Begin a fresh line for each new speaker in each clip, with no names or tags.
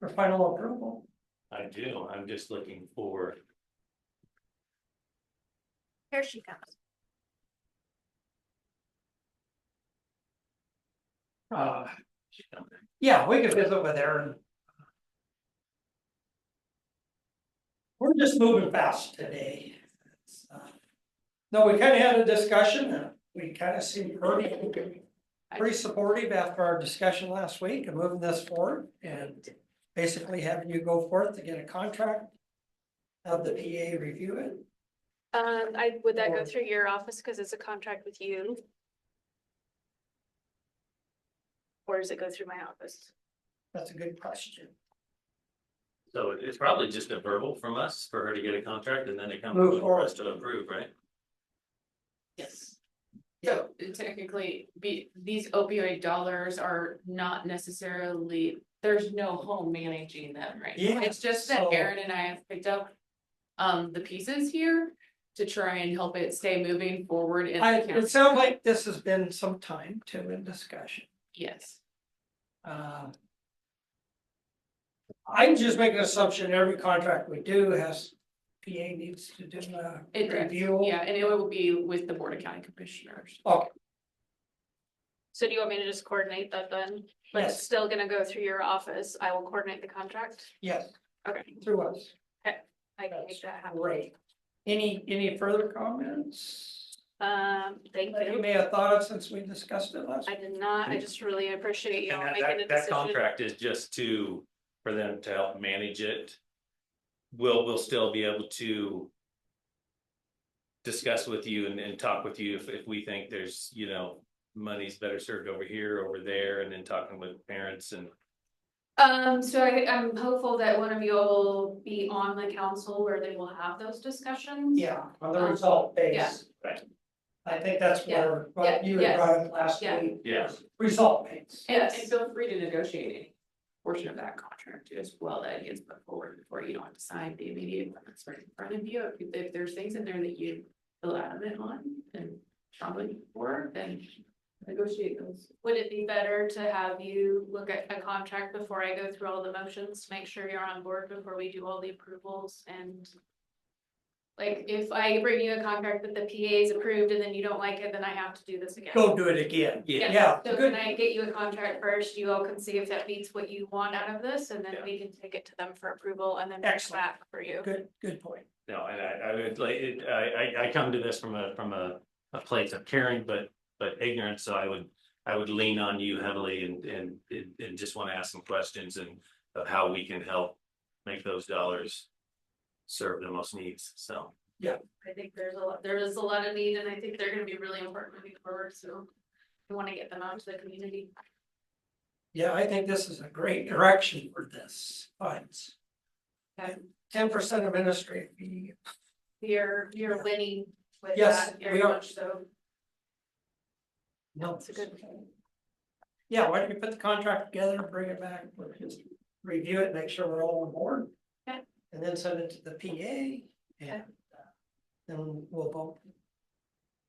for final approval.
I do, I'm just looking for,
Here she comes.
Uh, yeah, we could visit with Aaron. We're just moving fast today. It's, uh, No, we kind of had a discussion and we kind of seemed pretty, pretty supportive after our discussion last week and moving this forward and basically having you go forth to get a contract. Have the PA review it.
Um, I, would that go
Or-
through your office because it's a contract with you? Or does it go through my office?
That's a good question.
so it- it's probably just a verbal from us for her to get a contract and then it comes
Move
for us to approve, right?
Yes. So technically, be, these opioid dollars are not necessarily, there's no home managing them, right? now.
Yeah,
It's just that
so-
Aaron and I have picked up um the pieces here to try and help it stay moving forward in
I,
the
it
county,
sounds like this has been some time too in discussion.
yes.
Uh, I can just make an assumption, every contract we do has, PA needs to do a
It does,
review.
yeah, and it will be with the Board of County Commissioners.
Okay,
So do you want me to just coordinate that then? But it's
yes,
still gonna go through your office. I will coordinate the contract.
yes,
Okay,
through us,
I can
That's
make that happen.
great. Any, any further comments?
Um, thank
That you
you.
may have thought of since we discussed it last.
I did not, I just really appreciate you all
And
making a
that, that
decision.
contract is just to, for them to help manage it. We'll, we'll still be able to. Discuss with you and, and talk with you if, if we think there's, you know, money's better served over here, over there, and then talking with parents and.
Um, so I, I'm hopeful that one of you all will be on the council where they will have those discussions.
Yeah, on the
Um,
result
yeah.
base.
Right.
I think that's
Yeah,
where, what
yeah,
you had
yes,
brought up last
yeah.
week.
Yeah.
Result base.
And and
Yes.
feel free to negotiate any portion of that contract as well that gets put forward before you don't have to sign the immediate one that's right in front of you. If if there's things in there that you feel adamant on and strongly for, then negotiate those.
Would it be better to have you look at a contract before I go through all the motions, make sure you're on board before we do all the approvals and? Like, if I bring you a contract that the PA is approved and then you don't like it, then I have to do this again.
Go do it again.
Yeah.
Yeah,
So
good.
can I get you a contract first, you all can see if that meets what you want out of this, and then
Yeah.
we can take it to them for approval and then bring it
Excellent.
back for you.
Good, good point.
No, and I, I would like, it- I, I, I come to this from a, from a, a place of caring, but, but ignorant, so I would. I would lean on you heavily and, and, and- and just want to ask some questions and of how we can help make those dollars. Serve the most needs, so.
I think there's a lot, there is a lot of need, and I think they're gonna be really important moving forward, so. I wanna get them out to the community.
Yeah, I think this is a great direction for this, funds.
Okay.
Ten percent administrative fee,
You're, you're winning with
Yes,
that
we
very
are.
much so.
no.
That's a good-
Yeah, why don't you put the contract together, bring it back, we'll just review it, make sure we're all on board.
Okay.
And then send it to the PA and uh, then we'll vote.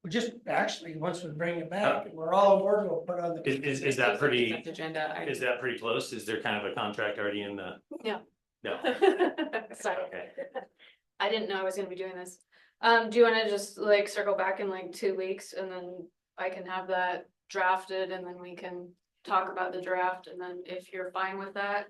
We just, actually, once we bring it back, and we're all on board, we'll put on the.
Is, is, is that pretty,
Consent Agenda. I-
is that pretty close? Is there kind of a contract already in the?
No.
No,
Sorry.
okay,
I didn't know I was gonna be doing this. Um, do you wanna just like circle back in like two weeks and then I can have that drafted and then we can talk about the draft and then if you're fine with that.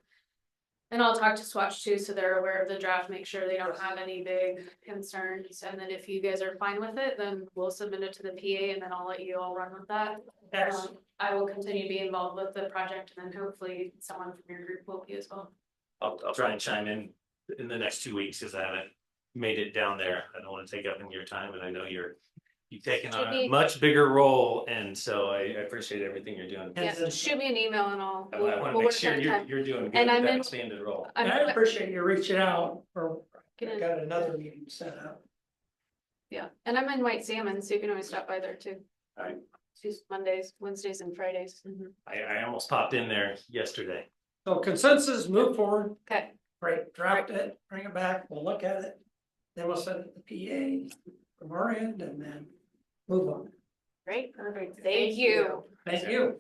And I'll talk to Swatch too, so they're aware of the draft, make sure they don't have any big concerns. And then if you guys are fine with it, then we'll submit it to the PA and then I'll let you all run with that.
Excellent.
Um, I will continue to be involved with the project and then hopefully someone from your group will be as well.
I'll, I'll try and chime in in the next two weeks, because I haven't made it down there. I don't want to take up any of your time, and I know you're. You've taken on a
Maybe-
much bigger role, and so I I appreciate everything you're doing.
And
Yeah,
then-
shoot me an email and I'll.
I want to
we'll
make
work
sure
on
you're,
time.
you're doing good
And
with
I'm
that
in-
expanded role.
And I
I'm-
appreciate you reaching out, or I
Gonna-
got another meeting set up.
Yeah, and I'm in White Salmon, so you can always stop by there too.
Alright.
Tuesdays, Mondays, Wednesdays and Fridays.
I, I almost popped in there yesterday.
So consensus, move forward,
Okay,
Great, draft it, bring it back, we'll look at it, then we'll send it to the PA from our end and then move on.
great.
Perfect.
Thank you.
Thank you.